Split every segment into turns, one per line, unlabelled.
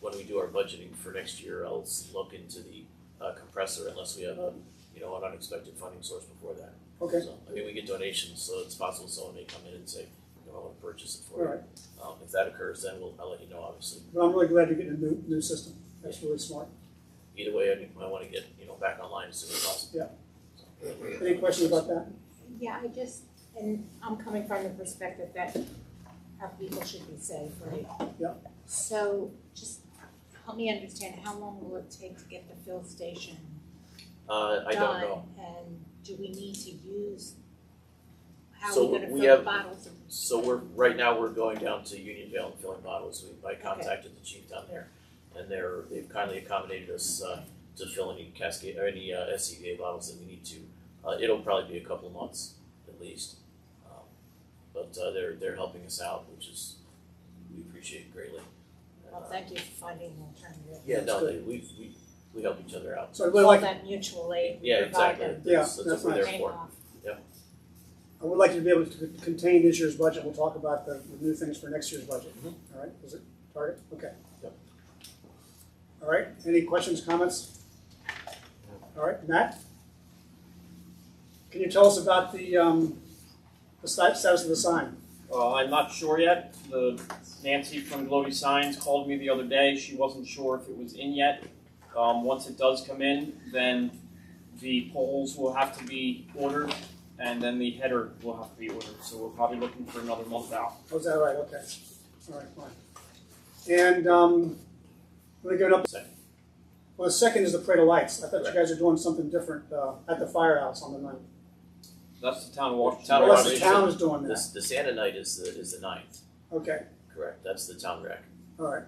when we do our budgeting for next year, I'll s- look into the uh, compressor unless we have a, you know, an unexpected funding source before that.
Okay,
So, I mean, we get donations, so it's possible someone may come in and say, you know, I wanna purchase it for you.
alright,
Um, if that occurs, then we'll, I'll let you know, obviously.
but I'm really glad you're getting a new, new system, that's really smart.
Either way, I, think I wanna get, you know, back online as soon as possible.
Yeah.
So,
Any questions about that?
Yeah, I just, and I'm coming from the perspective that our people should be safe, right?
Yeah.
So just help me understand, how long will it take to get the fill station
Uh, I don't
done?
know.
And do we need to use, how
So
are we gonna
we
fill the
have-
bottles? and-
So we're, right now, we're going down to Unionville and filling bottles, we, I contacted the chief down there. And they're, they've kindly accommodated us, uh, to fill any cascade, or any, uh, SCBA bottles that we need to. Uh, it'll probably be a couple of months at least. Um, But, uh, they're, they're helping us out, which is, we appreciate greatly. And,
Well,
uh,
thank you for finding an alternative.
Yeah,
That's
no,
good.
they, we, we, we help each other out.
So I would
All
like,
that mutual aid we
Yeah, exactly,
provided
Yeah,
that's, that's what
that's
we're
nice.
there
came
for.
off.
I would like to be able to c- contain this year's budget, we'll talk about the, the new things for next year's budget,
Mhm.
alright, is it target, okay.
Yep.
Alright, any questions, comments? Alright, Matt? Can you tell us about the, um, the sti- status of the sign?
Uh, I'm not sure yet. The Nancy from Glowy Signs called me the other day. She wasn't sure if it was in yet. Um, once it does come in, then the poles will have to be ordered, and then the header will have to be ordered. So we're probably looking for another month out.
Oh, is that right, okay, alright, fine. And, um, we're going up,
Second.
well, the second is the parade of lights, I thought you guys are doing something different, uh, at the firehouse on the ninth.
That's the town of Washington.
Town of
Unless the
Washington.
town is doing that,
This, the Santa night is the, is the ninth,
okay,
correct, that's the town rec.
alright.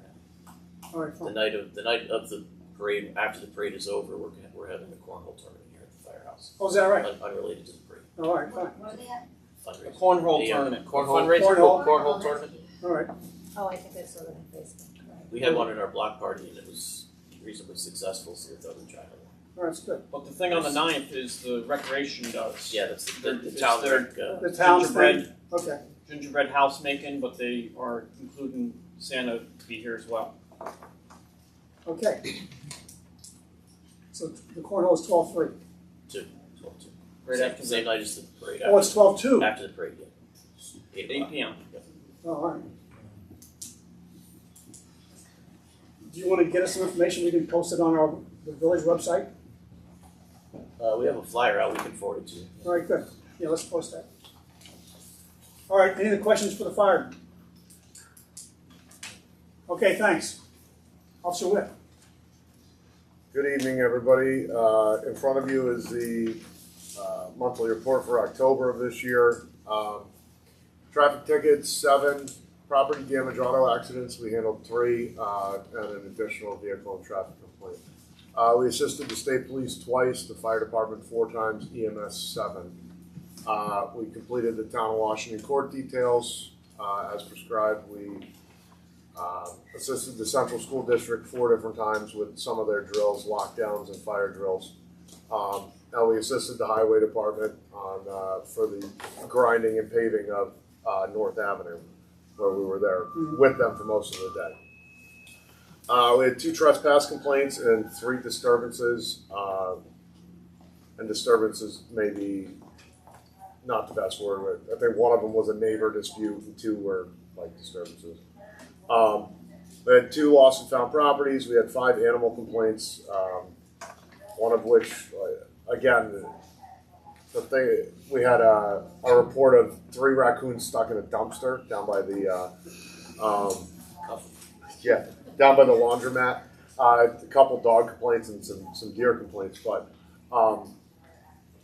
Alright, fine.
The night of, the night of the parade, after the parade is over, we're, gonna- we're having a cornhole tournament here at the firehouse.
Oh, is that right?
Un- Unrelated to the parade,
All right, fine.
What, what are they at?
The
fundraiser.
cornhole
The, uh,
tournament.
cornhole-
Fundraiser.
Cornhole.
Cornhole tournament.
All right.
Oh, I think I saw that on Facebook.
We had one in our block party and it was reasonably successful, so we thought we'd try another one.
All right, it's good.
But the thing on the 9th is the recreation does.
Yeah, that's the, the, the
It's
town
their-
rec, uh,
The town's
Gingerbread,
thing. Okay.
gingerbread house making, but they are including Santa to be here as well.
Okay. So the cornhole is twelve three.
twelve two.
Right
Same-
after
Same
the
night as the parade,
Oh, it's
after,
twelve two. Oh,
after the parade, yeah.
8
o'clock.
p.m.
all right. Do you want to get us some information? We can post it on our the village website.
Uh, we have a flyer out, we can forward it to you.
All right, good. Yeah, let's post that. All right. Any other questions for the fire? Okay. Thanks, Officer Whip.
Good evening, everybody. Uh, In front of you is the uh, monthly report for October of this year. Um, Traffic tickets, seven. Property damage, auto accidents, we handled three, uh, and an additional vehicle and traffic complaint. Uh, We assisted the state police twice, the fire department four times, EMS seven. Uh, We completed the town of Washington court details. Uh, As prescribed, we um, assisted the Central School District four different times with some of their drills, lockdowns and fire drills. Um, and we assisted the Highway Department on, uh, for the grinding and paving of, uh, North Avenue, where we were there with them for most of the day. Uh, we had two trespass complaints and three disturbances, uh, and disturbances may be not the best word, but I think one of them was a neighbor dispute and two were like disturbances. Um, we had two lost and found properties. We had five animal complaints, um, one of which, uh, again, the- the thing, we had a, a report of three raccoons stuck in a dumpster down by the, uh, um, yeah, down by the laundromat. Uh, a couple dog complaints and some, some deer complaints, but um,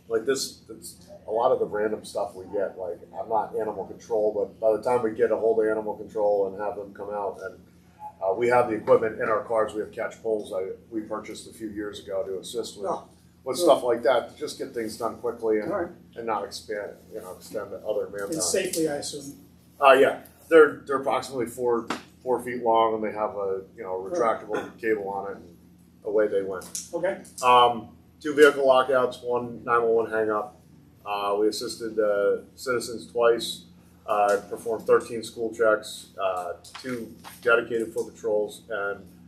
like this, it's a lot of the random stuff we get. Like I'm not animal control, but by the time we get a hold of animal control and have them come out, and uh, we have the equipment in our cars. We have catch poles I, we purchased a few years ago to assist with
Oh.
with stuff like that to just get things done quickly
All
and,
right.
and not expand, you know, extend the other manpower.
And safely, I assume.
Uh, yeah, they're they're approximately four four feet long, and they have a you know retractable cable on it. And away they went.
Okay.
Um, two vehicle lockouts, one nine one one hang up. Uh, we assisted uh, citizens twice. Uh, performed 13 school checks, uh, two dedicated foot patrols, and